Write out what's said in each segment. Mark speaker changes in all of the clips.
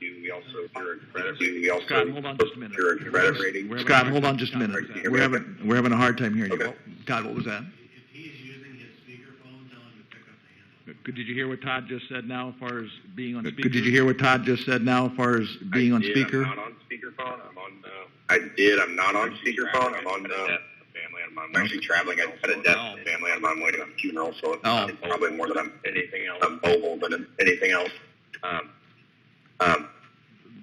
Speaker 1: We also encourage credit rating. We also
Speaker 2: Scott, hold on just a minute.
Speaker 1: encourage credit rating.
Speaker 2: We're having
Speaker 3: Scott,
Speaker 2: a
Speaker 3: hold
Speaker 2: hard
Speaker 3: on just a
Speaker 2: time.
Speaker 3: minute.
Speaker 1: Sorry, can you hear
Speaker 3: We're
Speaker 1: me?
Speaker 3: having, we're having a hard time hearing you.
Speaker 1: Okay.
Speaker 3: Todd, what was that?
Speaker 4: If he's using his speakerphone, tell him to pick up the handle.
Speaker 2: Could- Did you hear what Todd just said now as far as being on speaker?
Speaker 3: Did you hear what Todd just said now as far as being
Speaker 1: I
Speaker 3: on
Speaker 1: did,
Speaker 3: speaker?
Speaker 1: I'm not on speakerphone. I'm on. Uh, I did. I'm not on speakerphone. I'm on. Uh, family. I'm, I'm actually traveling. I had a death in the family. I'm on my way to a funeral, so it's,
Speaker 3: Oh.
Speaker 1: it's probably more than I'm anything else. I'm mobile than anything else. Um, um,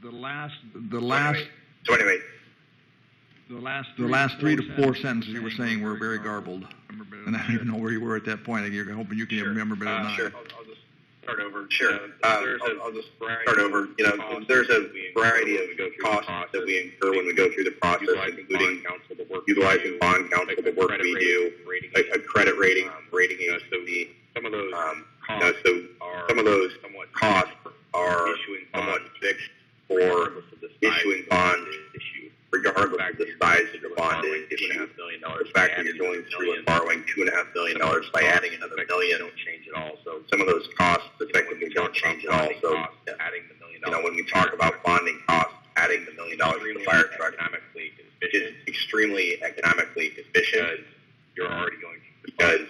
Speaker 2: The last,
Speaker 3: The last,
Speaker 1: so anyway,
Speaker 2: the last.
Speaker 3: the
Speaker 2: three
Speaker 3: last three to four sentences you were
Speaker 2: were
Speaker 3: saying were very garbled. And I don't even know where you were at that point. You're hoping you can
Speaker 1: Sure.
Speaker 3: remember better than
Speaker 1: Uh,
Speaker 3: I.
Speaker 1: sure. I'll, I'll just start over. Sure. Uh, I'll, I'll just start over. You know, there's a variety of costs that we incur when we go through the process, including utilizing bond counsel, the work we do, a, a credit rating, rating agency. um, Some of those costs are some of those costs are somewhat fixed for issuing bonds. Regardless of the size of the bond issue, the fact that you're going through and borrowing two and a half million dollars by adding another million don't change at all. So some of those costs effectively don't change at all. So adding the million you know when we talk about bonding costs, adding the million dollars to the fire truck economically is extremely economically efficient. You're already going because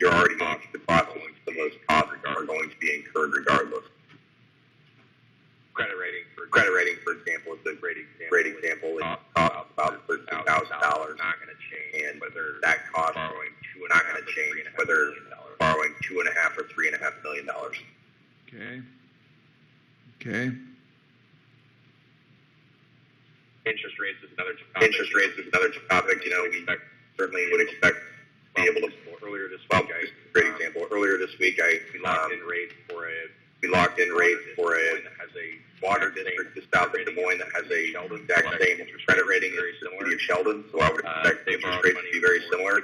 Speaker 1: you're already going through the process. So those costs are going to be incurred regardless credit rating for credit rating, for example, is a great example. Great example. It costs about thirteen thousand dollars. Uh, Not going to change. And whether that cost borrowing two not going to change whether borrowing two and a half or three and a half million dollars.
Speaker 2: Okay,
Speaker 3: Okay.
Speaker 1: Interest rates is another topic. Interest rates is another topic. You know, we certainly would expect to be able to. Earlier this well, week, I, great example. Earlier this week, I we locked in rates for a. We locked in rates for a has a water district just south of Des Moines that has a exact same credit rating as the city of Sheldon. So I would expect interest rates to be very similar.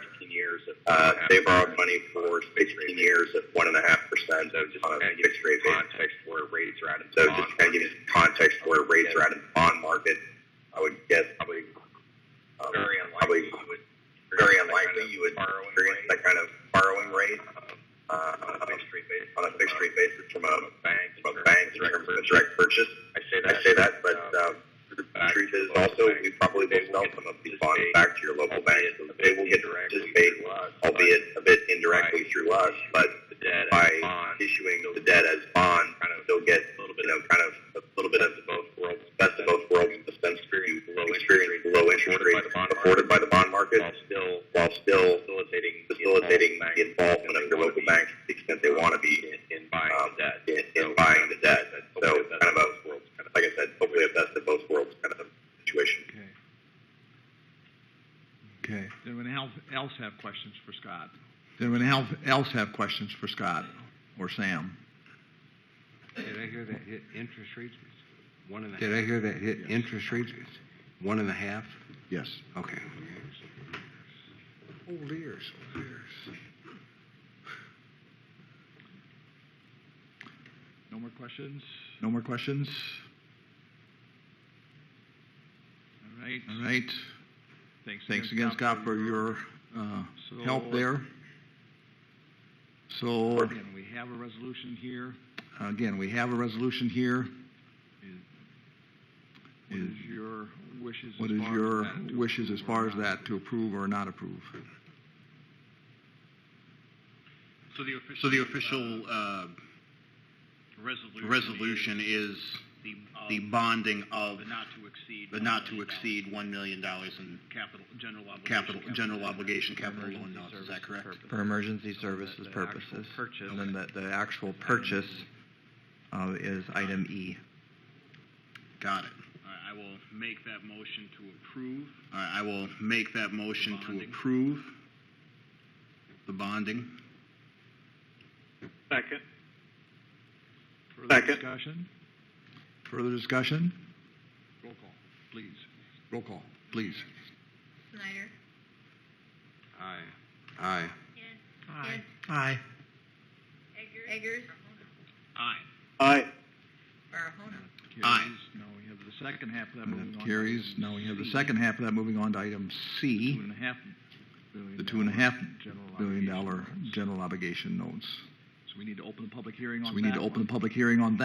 Speaker 1: Uh, they borrowed money for 16 years at one and a half percent on a Uh, fixed rate Context where rates are at. So just kind of give you some context where rates are at in the bond market. I would guess probably um, very unlikely you would very unlikely you would experience that kind of borrowing rate uh, on a fixed rate basis on a fixed rate basis from a bank from a bank in terms of a direct purchase. I say that I say that, but um, the truth is also we probably will sell some of these bonds back to your local bank. So They will get to participate, albeit a bit indirectly through us, but by issuing the debt as bond, they'll get you know kind of a little bit of both worlds, best of both worlds, the sense experience low interest rates afforded by the bond market, still while still facilitating facilitating the involvement of your local bank to the extent they want to be in buying the debt. In, in buying the debt. So kind of a like I said, hopefully a best of both worlds kind of situation.
Speaker 2: okay.
Speaker 3: Okay.
Speaker 2: Does anyone else- else have questions for Scott?
Speaker 3: Did anyone else- else have questions for Scott or Sam?
Speaker 5: Did I hear that hit interest rates was one and a half? Did I hear that hit interest rates was one and a half?
Speaker 3: Yes.
Speaker 5: Okay. Old ears, old ears.
Speaker 2: No more questions?
Speaker 3: No more questions?
Speaker 2: All right.
Speaker 3: All right.
Speaker 2: Thanks.
Speaker 3: Uh-huh. Thanks again, Scott, for your uh, help there. So,
Speaker 2: And we have a resolution here.
Speaker 3: again, we have a resolution here.
Speaker 2: What
Speaker 3: Is-
Speaker 2: is your wishes? as
Speaker 3: What is
Speaker 2: far as
Speaker 3: your
Speaker 2: that to
Speaker 3: wishes as
Speaker 2: approve or
Speaker 3: far as
Speaker 2: not?
Speaker 3: that, to approve or not approve?
Speaker 6: So the official. uh,
Speaker 7: So the official uh,
Speaker 6: Resolution.
Speaker 7: resolution is
Speaker 6: The.
Speaker 7: the bonding of
Speaker 6: But not to exceed.
Speaker 7: the not to exceed $1 million in
Speaker 6: Capital, general obligation.
Speaker 7: capital, general obligation capital loan notes. Is that correct?
Speaker 8: For emergency services purposes. And then the, the actual purchase uh, is item E.
Speaker 7: Got it.
Speaker 6: All right, I will make that motion to approve.
Speaker 7: All right, I will make that motion to
Speaker 6: Bonding.
Speaker 7: approve the bonding.
Speaker 6: Second.
Speaker 2: Further discussion?
Speaker 3: Further discussion?
Speaker 2: Roll call, please.
Speaker 3: Roll call, please.
Speaker 9: Snyder.
Speaker 5: Aye. Aye.
Speaker 9: Hand. Aye.
Speaker 8: Aye.
Speaker 9: Eggers. Eggers.
Speaker 6: Aye.
Speaker 9: Barahona.
Speaker 7: Aye.
Speaker 2: Carries. Now we have the second half of that
Speaker 3: And
Speaker 2: moving
Speaker 3: that
Speaker 2: on. to
Speaker 3: carries.
Speaker 2: item
Speaker 3: Now we have the
Speaker 2: C,
Speaker 3: second half of that, moving on to item
Speaker 2: Two
Speaker 3: C,
Speaker 2: and a half billion.
Speaker 3: the two and a
Speaker 2: dollar
Speaker 3: half
Speaker 2: general
Speaker 3: billion
Speaker 2: obligation
Speaker 3: dollar
Speaker 2: bonds.
Speaker 3: general obligation notes.
Speaker 2: So we need to open a public hearing on
Speaker 3: So
Speaker 2: that
Speaker 3: we need to
Speaker 2: one.
Speaker 3: open a public hearing on that.